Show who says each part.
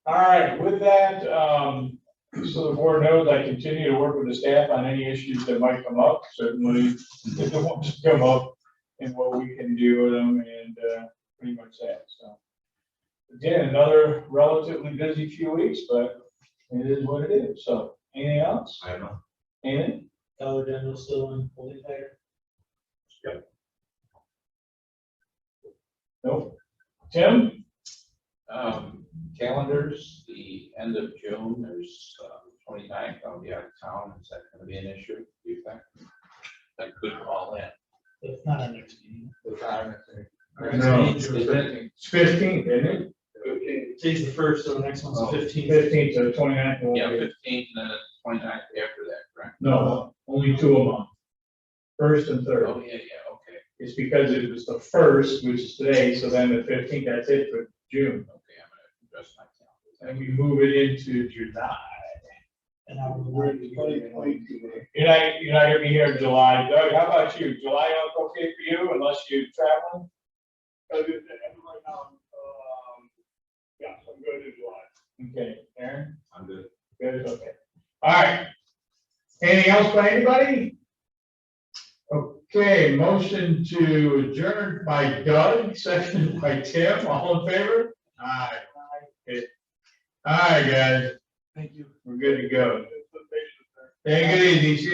Speaker 1: All right, with that, um, so the board knows I continue to work with the staff on any issues that might come up, certainly if they want to come up and what we can do with them and, uh, pretty much that, so. Again, another relatively busy few weeks, but it is what it is, so anything else?
Speaker 2: I don't know.
Speaker 1: Anything?
Speaker 3: Dollar General still in holding pattern?
Speaker 1: Nope. Tim?
Speaker 4: Um, calendars, the end of June, there's twenty ninth, I'll be out of town, is that gonna be an issue, do you think? I could call in.
Speaker 3: It's not our next meeting.
Speaker 1: No.
Speaker 3: It's
Speaker 1: It's fifteen, isn't it?
Speaker 3: Today's the first, so the next one's the
Speaker 4: Oh.
Speaker 3: fifteenth.
Speaker 1: Fifteen to twenty-nine.
Speaker 4: Yeah, fifteenth and then twenty ninth after that, correct?
Speaker 1: No, only two a month. First and third.
Speaker 4: Oh, yeah, yeah, okay,
Speaker 1: It's because it was the first, which is today, so then the fifteenth, that's it for June.
Speaker 4: okay, I'm gonna adjust my
Speaker 1: And we move it into July.
Speaker 3: And I will work.
Speaker 1: You're not, you're not gonna be here in July. Doug, how about you? July up okay for you unless you're traveling?
Speaker 5: Because it's end right now, um, yeah, so I'm good in July.
Speaker 1: Okay, Aaron?
Speaker 2: I'm good.
Speaker 1: Good, okay. All right. Anything else by anybody? Okay, motion to adjourn by Doug, seconded by Tim, all in favor? Aye. Okay. All right, guys,
Speaker 3: Thank you.
Speaker 1: we're good to go. Take it easy, See